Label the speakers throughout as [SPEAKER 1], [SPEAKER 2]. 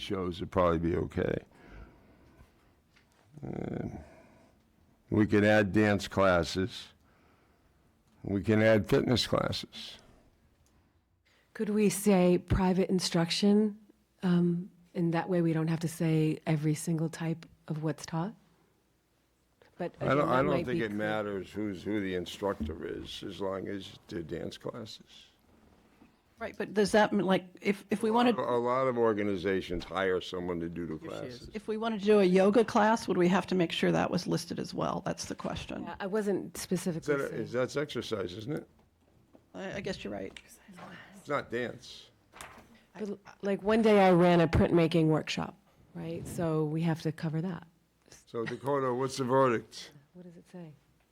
[SPEAKER 1] shows would probably be okay. Um, We can add dance classes. We can add fitness classes.
[SPEAKER 2] Could we say private instruction? Um, And that way, we don't have to say every single type of what's taught? But
[SPEAKER 1] I don't,
[SPEAKER 2] again,
[SPEAKER 1] I
[SPEAKER 2] that
[SPEAKER 1] don't
[SPEAKER 2] might
[SPEAKER 1] think
[SPEAKER 2] be
[SPEAKER 1] it
[SPEAKER 2] clear.
[SPEAKER 1] matters who's, who the instructor is, as long as they're dance classes.
[SPEAKER 3] Right, but does that, mean, like, if, if we
[SPEAKER 1] A
[SPEAKER 3] wanted,
[SPEAKER 1] a lot of organizations hire someone to do the classes.
[SPEAKER 3] if we wanted to do a yoga class, would we have to make sure that was listed as well? That's the question.
[SPEAKER 2] Yeah, I wasn't
[SPEAKER 1] Is
[SPEAKER 2] specifically
[SPEAKER 1] that- is-
[SPEAKER 2] saying.
[SPEAKER 1] That's exercise, isn't it?
[SPEAKER 3] I, I guess you're right.
[SPEAKER 1] It's not dance.
[SPEAKER 2] But, Like, one day I ran a printmaking workshop, right? So we have to cover that.
[SPEAKER 1] So Dakota, what's the verdict?
[SPEAKER 2] What does it say?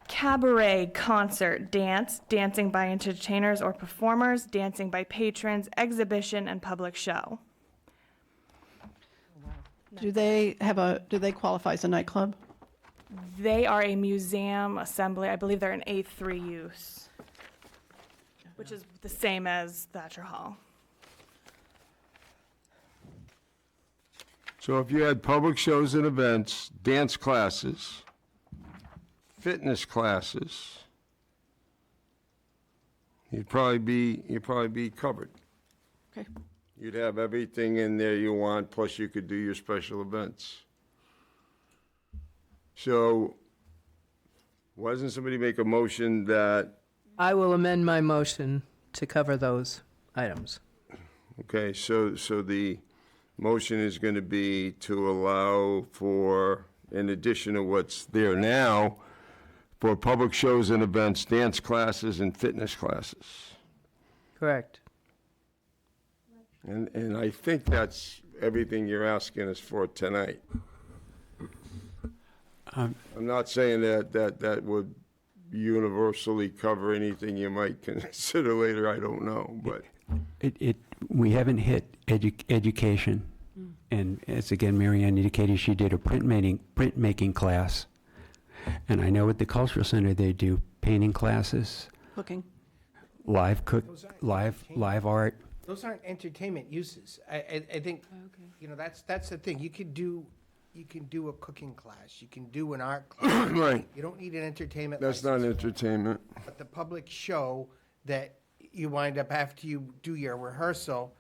[SPEAKER 4] Cabaret, concert, dance, dancing by entertainers or performers, dancing by patrons, exhibition, and public show.
[SPEAKER 3] Do they have a, do they qualify as a nightclub?
[SPEAKER 4] They are a museum assembly. I believe they're an A3 use, which is the same as Thatcher Hall.
[SPEAKER 1] So if you had public shows and events, dance classes, fitness classes, you'd probably be, you'd probably be covered.
[SPEAKER 3] Okay,
[SPEAKER 1] You'd have everything in there you want, plus you could do your special events. So, why doesn't somebody make a motion that,
[SPEAKER 5] I will amend my motion to cover those items.
[SPEAKER 1] okay, so, so the motion is gonna be to allow for, in addition to what's there now, for public shows and events, dance classes and fitness classes.
[SPEAKER 5] Correct.
[SPEAKER 1] And, and I think that's everything you're asking us for tonight. I'm not saying that, that, that would universally cover anything you might consider later, I don't know, but
[SPEAKER 6] It, it, we haven't hit edu- education. And as again, Marianne indicated, she did a printmaking, printmaking class. And I know at the cultural center, they do painting classes,
[SPEAKER 3] cooking.
[SPEAKER 6] live cook, live, live art.
[SPEAKER 7] Those aren't entertainment uses. I, I, I think, you know, that's, that's the thing. You could do, you can do a cooking class, you can do an art class.
[SPEAKER 1] Right.
[SPEAKER 7] You don't need an entertainment
[SPEAKER 1] that's not
[SPEAKER 7] license,
[SPEAKER 1] entertainment.
[SPEAKER 7] But the public show that you wind up after you do your rehearsal,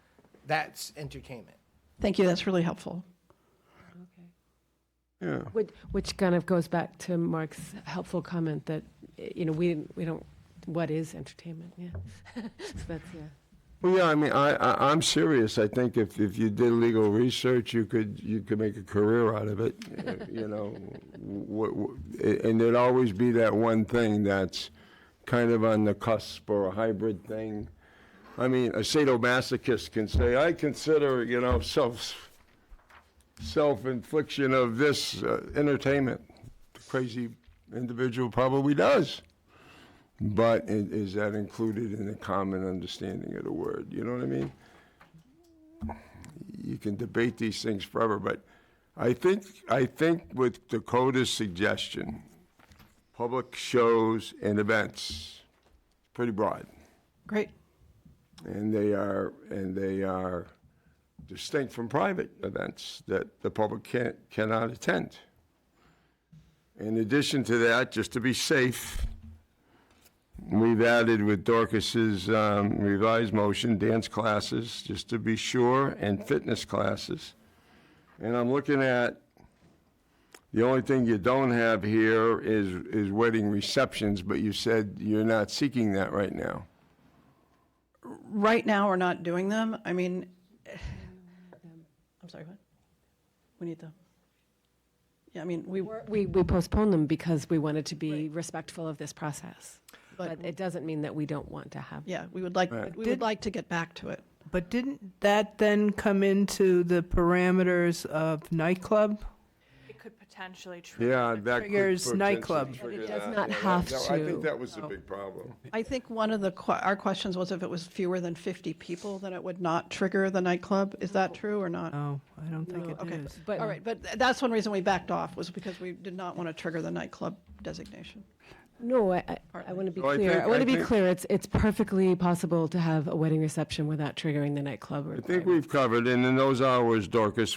[SPEAKER 7] that's entertainment.
[SPEAKER 3] Thank you, that's really helpful.
[SPEAKER 1] Yeah,
[SPEAKER 2] Which, which kind of goes back to Mark's helpful comment that, eh, you know, we, we don't, what is entertainment? Yeah. So that's, yeah.
[SPEAKER 1] well, yeah, I mean, I, I, I'm serious, I think if, if you did legal research, you could, you could make a career out of it, uh, you know? Wh- wh- And there'd always be that one thing that's kind of on the cusp or a hybrid thing. I mean, a sadomasochist can say, I consider, you know, self, self-infliction of this uh, entertainment. The crazy individual probably does. But i- is that included in the common understanding of the word? You know what I mean? You can debate these things forever, but I think, I think with Dakota's suggestion, public shows and events, pretty broad
[SPEAKER 3] Great,
[SPEAKER 1] and they are and they are distinct from private events that the public can't cannot attend. In addition to that, just to be safe, we've added with Dorcas's um, revised motion dance classes, just to be sure, and fitness classes. And I'm looking at the only thing you don't have here is is wedding receptions, but you said you're not seeking that right now.
[SPEAKER 3] right now, we're not doing them. I mean, I'm sorry, what? We need them. Yeah, I mean, we,
[SPEAKER 2] We're- We, we postponed them because we wanted to be respectful of this process. But it doesn't mean that we don't want to have.
[SPEAKER 3] yeah, we would like, we would like to get back to it.
[SPEAKER 5] But didn't that then come into the parameters of nightclub?
[SPEAKER 4] It could potentially trigger.
[SPEAKER 1] Yeah, that could
[SPEAKER 5] Triggers
[SPEAKER 1] potentially
[SPEAKER 5] nightclub.
[SPEAKER 1] trigger
[SPEAKER 2] But it does
[SPEAKER 1] that.
[SPEAKER 2] not
[SPEAKER 1] Yeah,
[SPEAKER 2] have
[SPEAKER 1] that- I think
[SPEAKER 2] to. Oh.
[SPEAKER 1] that was the big problem.
[SPEAKER 3] I think one of the, que- our questions was if it was fewer than 50 people, then it would not trigger the nightclub. Is that true or not?
[SPEAKER 5] Oh, I don't think it
[SPEAKER 3] Okay,
[SPEAKER 5] is.
[SPEAKER 2] But-
[SPEAKER 3] all right, but th- that's one reason we backed off, was because we did not want to trigger the nightclub designation.
[SPEAKER 2] No, I, I- I want to be
[SPEAKER 1] So I
[SPEAKER 2] clear.
[SPEAKER 1] think-
[SPEAKER 2] I want
[SPEAKER 1] I
[SPEAKER 2] to be
[SPEAKER 1] think-
[SPEAKER 2] clear. It's, it's perfectly possible to have a wedding reception without triggering the nightclub
[SPEAKER 1] I think
[SPEAKER 2] requirement.
[SPEAKER 1] we've covered, and in those hours, Dorcas,